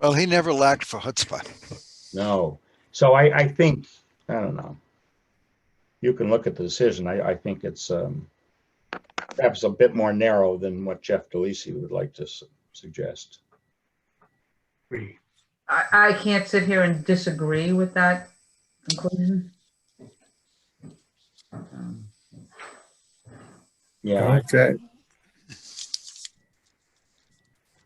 Well, he never lacked for chutzpah. No. So I, I think, I don't know. You can look at the decision. I, I think it's um, perhaps a bit more narrow than what Jeff DeLisi would like to s- suggest. I, I can't sit here and disagree with that conclusion. Um, Yeah, I- Okay,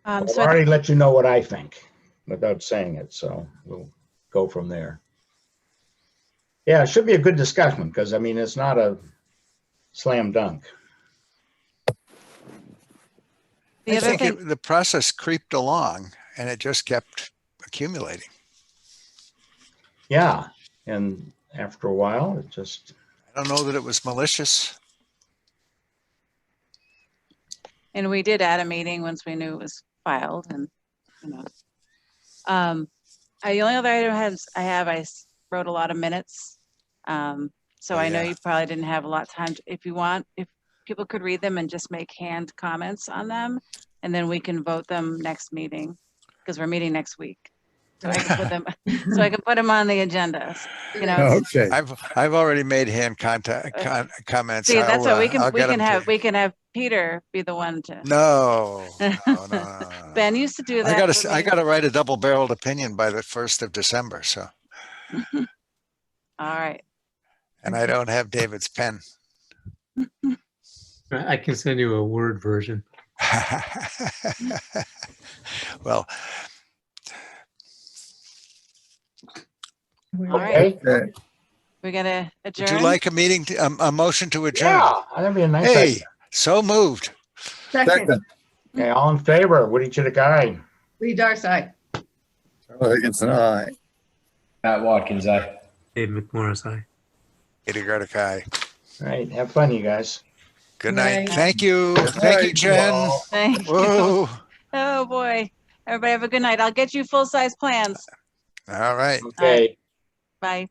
Um, I've so I already let you know what I think without saying it, so we'll go from there. Yeah, it should be a good discussion because, I mean, it's not a slam dunk. think the I other think thing, it- the process creeped along and it just kept accumulating. Yeah, and after a while, it just, I don't know that it was malicious. and we did add a meeting once we knew it was filed and, you know. Um, I, the only other item has, I have, I s- wrote a lot of minutes. Um, so Oh, I know yeah. you probably didn't have a lot of time. to- If you want, if people could read them and just make hand comments on them, and then we can vote them next meeting, because we're meeting next week. So I can put them, so I can put them on the agenda, you know, okay. I've, I've already made hand contact, Uh, con- comments. See, I'll, that's what we uh, can, I'll we get can 'em to- have, we can have Peter be the one to, No, no, no, no, no. Ben used to do that. I gotta, for s- I me. gotta write a double barreled opinion by the first of December, so, All right, and Mm-hmm. I don't have David's pen. I I can send you a Word version. Well, all right. okay, Okay. We gotta adjourn. would you like a meeting, to- um, a, a motion to adjourn? yeah, that'd be a nice. Hey, idea. so moved. Second, Okay, all in favor, Woody Chidikai. Lee Darcey. Oh, it's an aye. Matt Watkins, eh? I. Dave McMorris, aye. Eddie Gardakai. All right, have fun, you guys. Good Night. night. Thank you. Thank you, night, Jen. y'all. Thank you. Whoa. Oh, boy. Everybody have a good night. I'll get you full-size plans. All right. Okay. Bye.